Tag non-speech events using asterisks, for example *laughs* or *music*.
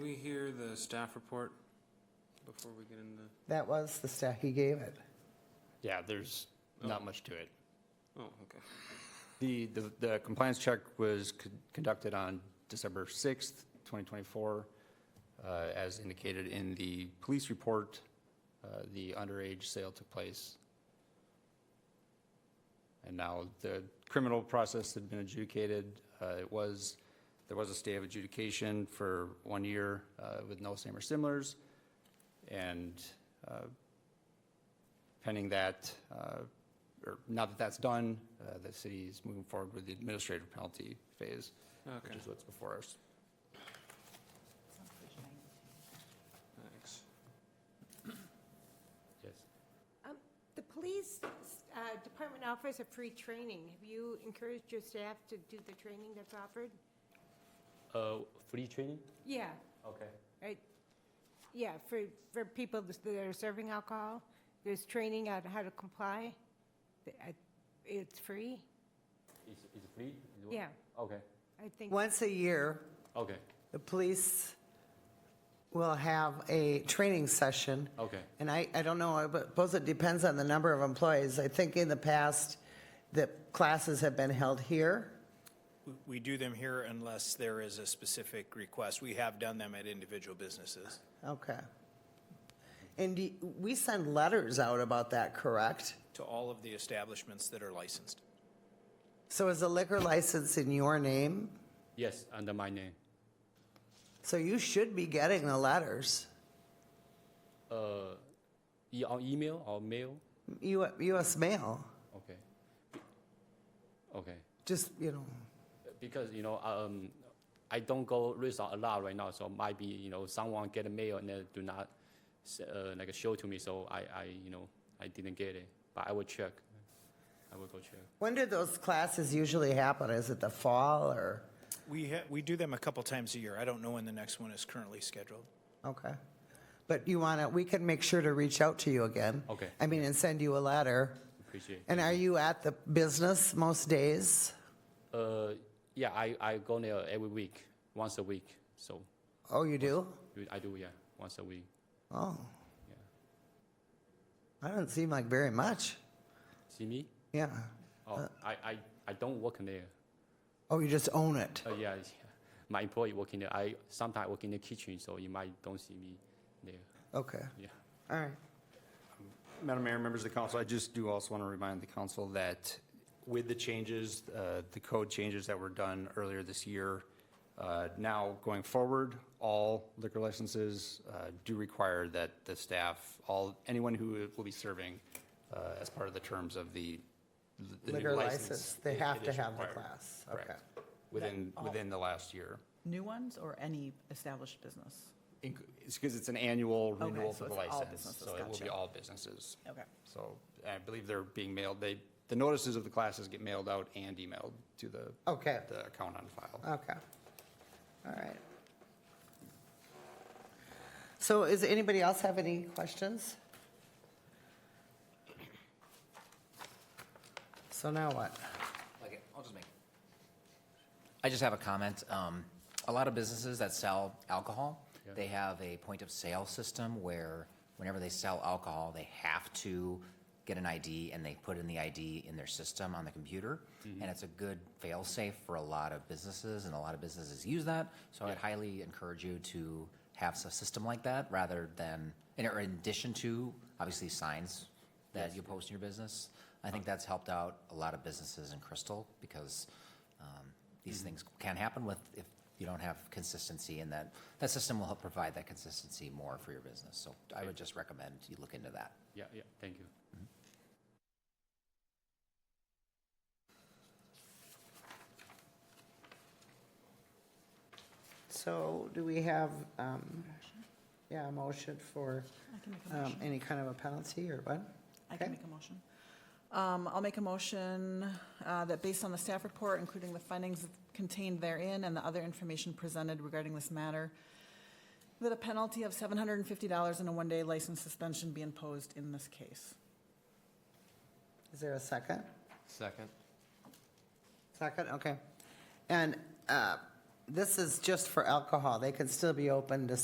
hear the staff report before we get into? That was the stat he gave it. Yeah, there's not much to it. Oh, okay. The, the, the compliance check was con- conducted on December 6th, 2024. Uh, As indicated in the police report, uh, the underage sale took place. And now the criminal process had been adjudicated. Uh, It was, there was a stay of adjudication for one year uh, with no same or similars. And uh, pending that, uh, or now that that's done, uh, the city is moving forward with the administrative penalty phase, which Okay, is what's before us. thanks. Yes. The police uh, department offers a free training. Have you encouraged your staff to do the training that's offered? Uh, free training? Yeah, Okay. right, yeah, for, for people that are serving alcohol, there's training on how to comply. The- I- It's free? It's, it's free? Is what- Yeah, Okay, I think, Once a year, okay, the police will have a training session. okay. And I, I don't know, I suppose it depends on the number of employees. I think in the past, the classes have been held here. We- We do them here unless there is a specific request. We have done them at individual businesses. Okay. And do- we send letters out about that, correct? To all of the establishments that are licensed. So is the liquor license in your name? Yes, under my name. So you should be getting the letters. Uh, e- on email or mail? U- US Mail, Okay. Be- Okay, just, you know, because, you know, um, I don't go resort a lot right now, so might be, you know, someone get a mail and then do not, s- uh, like show to me, so I, I, you know, I didn't get it, but I will check. I will go check. when do those classes usually happen? Is it the fall or, We, ha- we do them a couple times a year. I don't know when the next one is currently scheduled. okay. But you want to, we can make sure to reach out to you again. Okay. I mean, and send you a letter. Appreciate it. And are you at the business most days? Uh, yeah, I, I go there every week, once a week, so. Oh, you do? I do, yeah, once a week. Oh, Yeah. I don't seem like very much. See me? Yeah. Oh, I, I, I don't work in there. Oh, you just own it. Uh, yeah, yeah. *laughs* my employee work in there. I sometimes work in the kitchen, so you might don't see me there. Okay. Yeah. All right. Madam Mayor, members of the council, I just do also want to remind the council that with the changes, uh, the code changes that were done earlier this year, uh, now going forward, all liquor licenses uh, do require that the staff, all, anyone who will be serving uh, as part of the terms of the the new Liquor license, license, they it- have it to is have the required. class. Okay. Correct. Within, within the last year. New ones or any established business? Inc- It's because it's an annual Okay, renewal so for the it's all license, businesses, so it will be gotcha. all businesses. Okay. So I believe they're being mailed, they, the notices of the classes get mailed out and emailed to the, Okay. the account on file. Okay. All right. So is anybody else have any questions? So now what? Like it. I'll just make it. I just have a comment. Um, a lot of businesses that sell alcohol, they have a point of sale system where whenever they sell alcohol, they have to get an ID and they put in the ID in their system on the computer. And it's a good fail safe for a lot of businesses and a lot of businesses use that. So I'd highly encourage you to have a system like that rather than, in, or in addition to, obviously signs that you post in your business. I think that's helped out a lot of businesses in Crystal because um, these things can happen with if you don't have consistency, and that that system will help provide that consistency more for your business. So I would just recommend you look into that. Yeah, yeah, thank you. So do we have, um, yeah, a motion for I can make a um, motion. any kind of a penalty or what? I can okay. make a motion. Um, I'll make a motion uh, that based on the staff report, including the findings contained therein and the other information presented regarding this matter, that a penalty of $750 and a one-day license suspension be imposed in this case. Is there a second? Second. Second, okay. And uh, this is just for alcohol. They can still be open to